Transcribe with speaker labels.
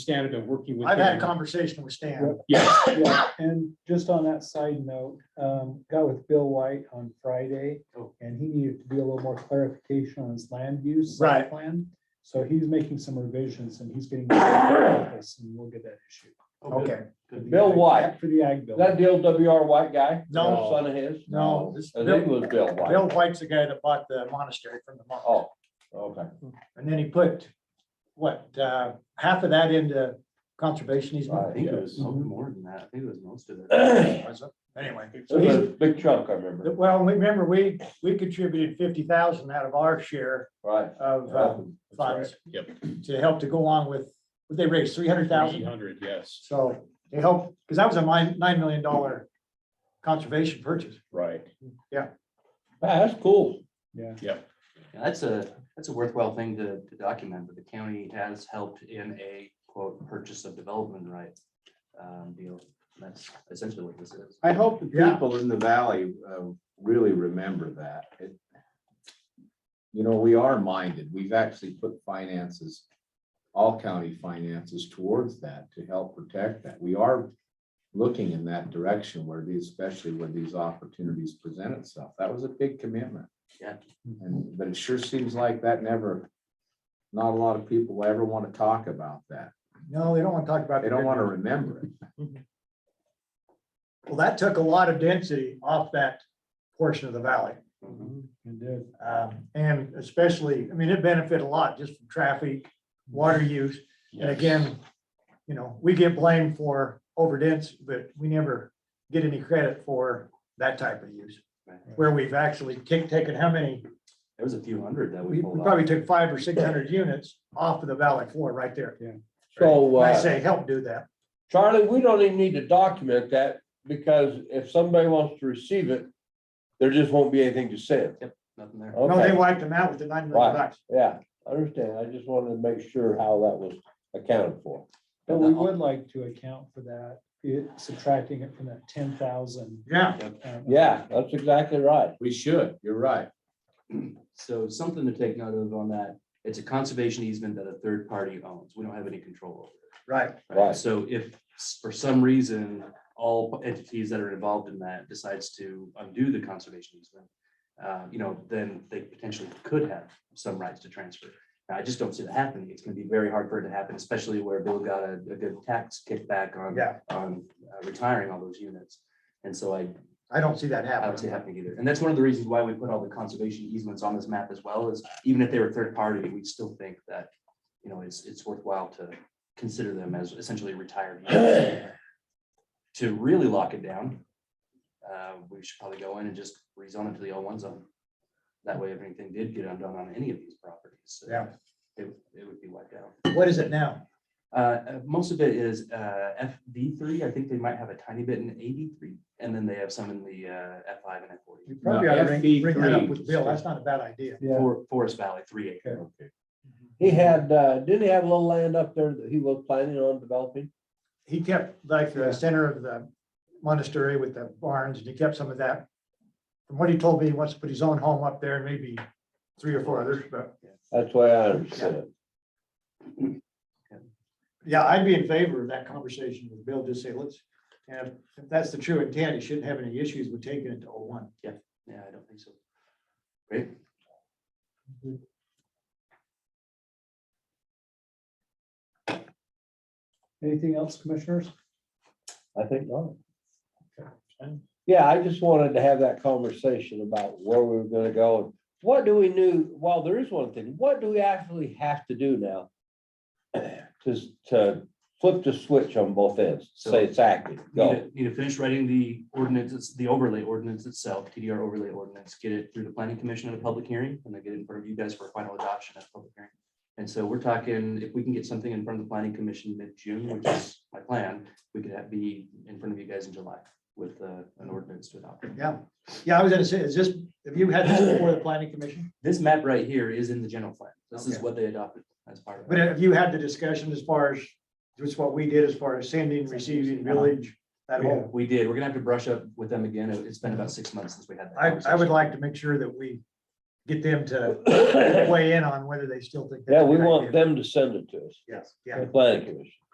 Speaker 1: Stan have been working with.
Speaker 2: I've had a
Speaker 1: them.
Speaker 2: conversation with Stan.
Speaker 1: Yeah,
Speaker 3: Yeah, and just on that side note, um, got with Bill White on Friday,
Speaker 2: Oh.
Speaker 3: and he needed to be a little more clarification on his land use.
Speaker 2: Right.
Speaker 3: Plan, so he's making some revisions and he's getting. this, And we'll get that issue.
Speaker 2: Okay,
Speaker 4: Bill White,
Speaker 3: For the ag bill.
Speaker 4: that the old WR White guy?
Speaker 2: No.
Speaker 4: Son of his?
Speaker 2: no, this,
Speaker 4: I think it
Speaker 2: Bill
Speaker 4: was Bill White.
Speaker 2: Bill White's the guy that bought the monastery from the monk.
Speaker 4: Oh, okay.
Speaker 2: And then he put, what, uh, half of that into conservation
Speaker 4: Right.
Speaker 2: easement?
Speaker 5: I think it was
Speaker 3: Mhm.
Speaker 5: something more than that. I think it was most of it.
Speaker 2: Was it? Anyway,
Speaker 4: It was a big chunk, I remember.
Speaker 2: well, remember, we, we contributed fifty thousand out of our share
Speaker 4: Right.
Speaker 2: of uh, funds.
Speaker 1: Yep.
Speaker 2: To help to go along with, they raised three hundred
Speaker 1: eight
Speaker 2: thousand.
Speaker 1: hundred, yes,
Speaker 2: So they helped, because that was a nine, nine million dollar conservation purchase.
Speaker 1: right.
Speaker 4: Yeah, That's cool.
Speaker 3: Yeah.
Speaker 5: Yeah, That's a, that's a worthwhile thing to, to document, but the county has helped in a quote, purchase of development right. Um, deal. That's essentially what this is.
Speaker 6: I hope the
Speaker 2: Yeah.
Speaker 6: people in the valley uh, really remember that. It- You know, we are minded. We've actually put finances, all county finances towards that to help protect that. We are looking in that direction where these, especially where these opportunities present itself. That was a big commitment.
Speaker 5: Yeah.
Speaker 6: And, but it sure seems like that never, not a lot of people ever want to talk about that.
Speaker 2: No, they don't want to talk about.
Speaker 6: They don't want to remember it.
Speaker 2: Well, that took a lot of density off that portion of the valley.
Speaker 3: It did.
Speaker 2: Um, And especially, I mean, it benefited a lot just from traffic, water use. And again, you know, we get blamed for overdense, but we never get any credit for that type of use. Where we've actually kicked, taken how many?
Speaker 5: There was a few hundred that we
Speaker 2: We we
Speaker 5: pulled
Speaker 2: probably
Speaker 5: off.
Speaker 2: took five or six hundred units off of the valley floor right there.
Speaker 4: So,
Speaker 2: I
Speaker 4: uh,
Speaker 2: say, help do that.
Speaker 4: Charlie, we don't even need to document that because if somebody wants to receive it, there just won't be anything to send.
Speaker 5: Nothing there.
Speaker 2: No, they
Speaker 4: Okay,
Speaker 2: wiped them out with the nine million bucks.
Speaker 4: yeah, I understand. I just wanted to make sure how that was accounted for.
Speaker 3: But we would like to account for that, it- subtracting it from that ten thousand. um,
Speaker 2: Yeah,
Speaker 4: Yeah, that's exactly right.
Speaker 6: We should. You're right.
Speaker 5: So something to take note of on that. It's a conservation easement that a third party owns. We don't have any control over. it.
Speaker 2: right.
Speaker 4: Right.
Speaker 5: So if s- for some reason, all entities that are involved in that decides to undo the conservation easement, uh, you know, then they potentially could have some rights to transfer. Now, I just don't see that happening. It's gonna be very hard for it to happen, especially where Bill got a, a good tax kickback on,
Speaker 2: Yeah,
Speaker 5: on uh, retiring all those units. And so I,
Speaker 2: I don't see that
Speaker 5: I don't see it
Speaker 2: happening.
Speaker 5: happening either. And that's one of the reasons why we put all the conservation easements on this map as well, is even if they were third party, we still think that, you know, it's, it's worthwhile to consider them as essentially retired. easements. To really lock it down, uh, we should probably go in and just rezone it to the L one zone. That way, if anything did get undone on any of these properties. uh,
Speaker 2: Yeah.
Speaker 5: It, would- it would be wiped out.
Speaker 2: What is it now?
Speaker 5: Uh, Uh, most of it is uh, FV three. I think they might have a tiny bit in eighty three, and then they have some in the uh, F five and F forty.
Speaker 2: You probably
Speaker 6: No,
Speaker 2: ought to bring, bring that up
Speaker 6: FB3.
Speaker 2: with Bill. That's not a bad idea.
Speaker 3: Yeah,
Speaker 5: For- Forest Valley three acre.
Speaker 6: Okay.
Speaker 4: He had, uh, didn't he have a little land up there that he was planning on developing?
Speaker 2: He kept like
Speaker 3: Yeah.
Speaker 2: the center of the monastery with the barns and he kept some of that. From what he told me, he wants to put his own home up there and maybe three or four others, but
Speaker 4: That's the way I understood it.
Speaker 2: yeah, I'd be in favor of that conversation with Bill. Just say, let's, and if- if that's the true intent, he shouldn't have any issues with taking it to O one.
Speaker 5: Yeah, I don't think so. Great.
Speaker 3: anything else, commissioners?
Speaker 4: I think not. Yeah, I just wanted to have that conversation about where we were gonna go. and What do we knew, well, there is one thing, what do we actually have to do now? To, to flip the switch on both ends, say it's active,
Speaker 5: Need
Speaker 4: go.
Speaker 5: to- need to finish writing the ordinance, it's the overlay ordinance itself, TDR overlay ordinance, get it through the planning commission at a public hearing, and then get it in front of you guys for final adoption at a public hearing. And so we're talking, if we can get something in front of the planning commission mid-June, which is my plan, we could have be in front of you guys in July with uh, an ordinance to adopt.
Speaker 2: Yeah, yeah, I was gonna say, is this, have you had this before the planning commission?
Speaker 5: This map right here is in the general plan. This is
Speaker 2: Okay.
Speaker 5: what they adopted as part of
Speaker 2: But
Speaker 5: it.
Speaker 2: have you had the discussion as far as, just what we did as far as sending, receiving, village, that whole?
Speaker 5: We did. We're gonna have to brush up with them again. It- It's been about six months since we had that.
Speaker 2: I, I would
Speaker 5: conversation.
Speaker 2: like to make sure that we get them to
Speaker 4: Yeah,
Speaker 2: weigh in on whether they still think. that's a
Speaker 4: we
Speaker 2: good
Speaker 4: want
Speaker 2: idea.
Speaker 4: them to send it to us,
Speaker 2: Yes, yeah.
Speaker 4: the planning commission.